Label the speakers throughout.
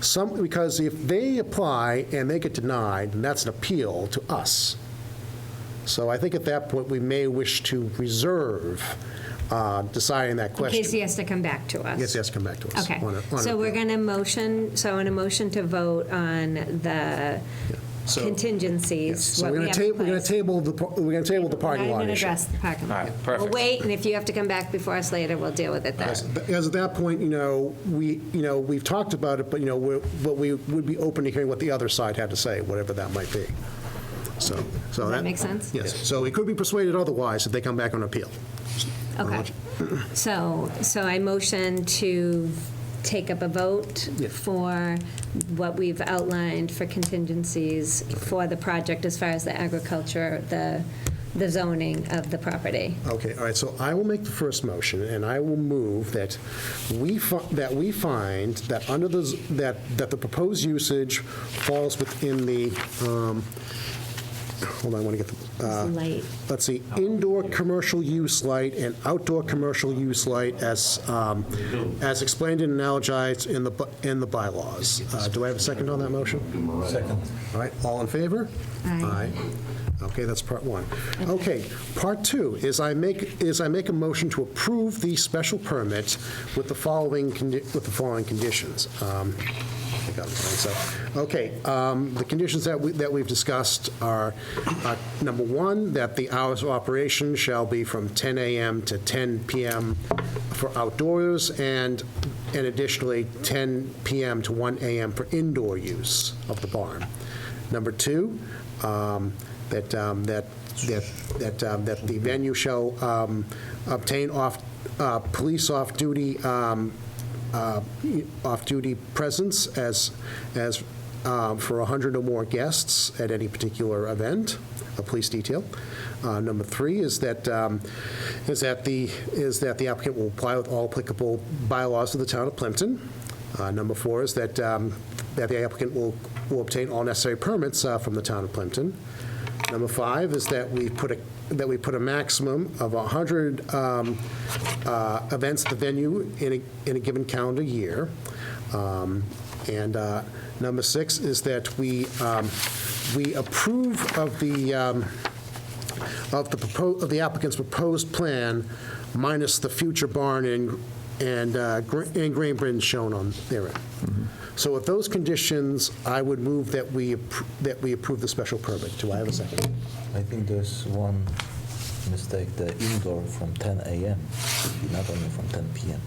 Speaker 1: Some, because if they apply and they get denied, then that's an appeal to us. So I think at that point, we may wish to reserve uh, deciding that
Speaker 2: In
Speaker 1: question.
Speaker 2: case he has to come back to us.
Speaker 1: Yes, yes, come back to us.
Speaker 2: Okay,
Speaker 1: on a- on a-
Speaker 2: so we're going to motion, so in a motion to vote on the
Speaker 1: So-
Speaker 2: contingencies,
Speaker 1: So we're
Speaker 2: what we
Speaker 1: going
Speaker 2: have
Speaker 1: to
Speaker 2: in
Speaker 1: table, we're going to
Speaker 2: place.
Speaker 1: table the, par- we're going to table the parking
Speaker 2: Not
Speaker 1: lot
Speaker 2: even
Speaker 1: issue.
Speaker 2: address the parking lot.
Speaker 3: All right, perfect.
Speaker 2: We'll wait, and if you have to come back before us later, we'll deal with it then.
Speaker 1: Because at that point, you know, we, you know, we've talked about it, but, you know, we're, but we would be open to hearing what the other side had to say, whatever that might be. So, so.
Speaker 2: that make sense?
Speaker 1: Yes, so we could be persuaded otherwise if they come back on appeal.
Speaker 2: Okay. So, so I motion to take up a vote
Speaker 1: Yeah.
Speaker 2: for what we've outlined for contingencies for the project as far as the agriculture, the, the zoning of the property.
Speaker 1: Okay, all right, so I will make the first motion, and I will move that we, fi- that we find that under the, z- that, that the proposed usage falls within the, um, hold on, I want to get the, uh,
Speaker 2: Light.
Speaker 1: let's see, indoor commercial use light and outdoor commercial use light as, um, as explained and analogized in the, bu- in the bylaws. Uh, Do I have a second on that motion? Second. All right, all in favor?
Speaker 2: Aye.
Speaker 1: Okay, that's part one. Okay, part two is I make, is I make a motion to approve the special permit with the following, condi- with the following conditions. Um, I got it, so, Okay, um, the conditions that we, that we've discussed are, uh, number one, that the hours of operation shall be from 10 AM to 10 PM for outdoors, and, and additionally, 10 PM to 1 AM for indoor use of the barn. Number two, um, that, um, that, that, that um, that the venue shall um, obtain off, uh, police off-duty, um, uh, off-duty presence as, as, um, for 100 or more guests at any particular event, a police detail. Uh, Number three is that, um, is that the, is that the applicant will apply with all applicable bylaws of the town of Plimpton. Uh, Number four is that, um, that the applicant will, will obtain all necessary permits uh, from the town of Plimpton. Number five is that we put a, that we put a maximum of 100 um, uh, events at the venue in a, in a given calendar year. Um, And uh, number six is that we, um, we approve of the, um, of the propo of the applicant's proposed plan minus the future barn and, and, uh, gra- and grain bins shown on therein. So with those conditions, I would move that we, appro- that we approve the special permit. Do I have a second?
Speaker 4: I think there's one mistake, the indoor from 10 a.m., not only from 10 p.m.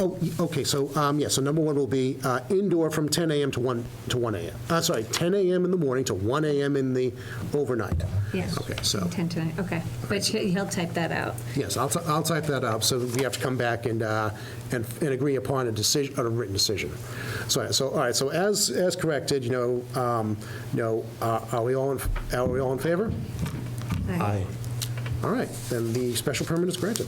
Speaker 1: Oh, y- okay, so, um, yeah, so number one will be uh, indoor from 10 AM to 1, to 1 AM. Uh, sorry, 10 AM in the morning to 1 AM in the overnight.
Speaker 2: Yes.
Speaker 1: Okay, so,
Speaker 2: Intent to- okay, but you- he'll type that out.
Speaker 1: yes, I'll, t- I'll type that up, so we have to come back and, uh, and and agree upon a decision, a written decision. So, so, all right, so as, as corrected, you know, um, you know, uh, are we all, in are we all in favor?
Speaker 4: Aye.
Speaker 1: All right, then the special permit is granted.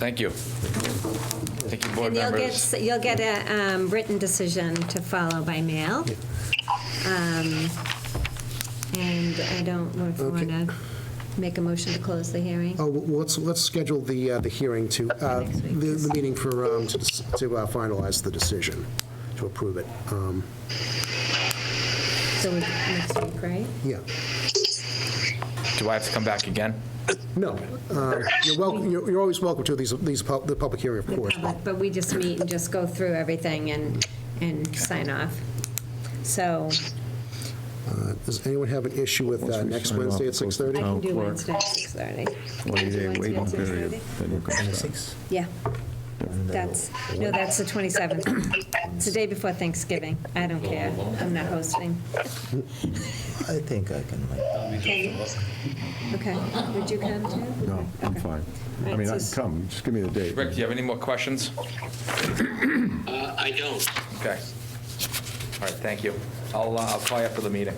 Speaker 3: Thank you. Thank you, board
Speaker 2: And you'll get,
Speaker 3: members.
Speaker 2: s- you'll get a um, written decision to follow by mail. Um, And I don't, know if you
Speaker 1: Okay.
Speaker 2: want to make a motion to close the hearing?
Speaker 1: Oh, well, let's, let's schedule the, uh, the hearing to, uh,
Speaker 2: Next week.
Speaker 1: the, the meeting for, um, to dis- to uh, finalize the decision, to approve it. Um,
Speaker 2: So we- next week, right?
Speaker 1: Yeah,
Speaker 3: Do I have to come back again?
Speaker 1: no, uh, you're welcome, you're you're always welcome to these, these, pub- the public hearing, of
Speaker 2: The
Speaker 1: course.
Speaker 2: public, But we just meet and just go through everything and, and sign off. So
Speaker 1: Uh, Does anyone have an issue with uh, next Wednesday at 6:30?
Speaker 2: I can do
Speaker 5: Town clerk.
Speaker 2: Wednesday at 6:30.
Speaker 5: One-day
Speaker 2: Wednesday
Speaker 5: waiting
Speaker 2: at
Speaker 5: period.
Speaker 2: 6:30?
Speaker 5: then you can start.
Speaker 2: Yeah,
Speaker 4: uh,
Speaker 2: that's, no, that's the 27th. It's the day before Thanksgiving. I don't care. I'm not hosting.
Speaker 4: I think I can make it.
Speaker 2: Okay, would you come too?
Speaker 5: No, I'm
Speaker 2: Okay.
Speaker 5: fine.
Speaker 2: All
Speaker 5: I
Speaker 2: right,
Speaker 5: mean,
Speaker 2: so
Speaker 5: I
Speaker 2: s-
Speaker 5: come, just give me the date.
Speaker 3: Rick, do you have any more questions?
Speaker 6: Uh, I don't.
Speaker 3: Okay. All right, thank you. I'll, uh, I'll call you after the meeting.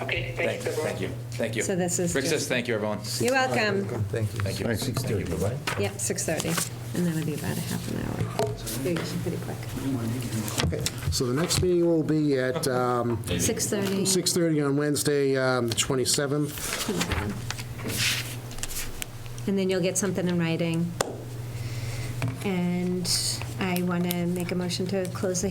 Speaker 6: Okay,
Speaker 3: Thank
Speaker 6: thanks, everyone.
Speaker 3: thank you, thank you.
Speaker 2: So this is
Speaker 3: Rick says,
Speaker 2: just-
Speaker 3: thank you, everyone.
Speaker 2: You're welcome.
Speaker 4: Thank you.
Speaker 3: Thank you. Thank you.
Speaker 4: 6:30, right?
Speaker 2: Yep, 6:30, and that'll be about a half an hour. Pretty- Pretty quick.
Speaker 1: So the next meeting will be at um,
Speaker 2: 6:30.
Speaker 1: 6:30 on Wednesday, um, the 27th.
Speaker 2: And then you'll get something in writing. And I want to make a motion to close the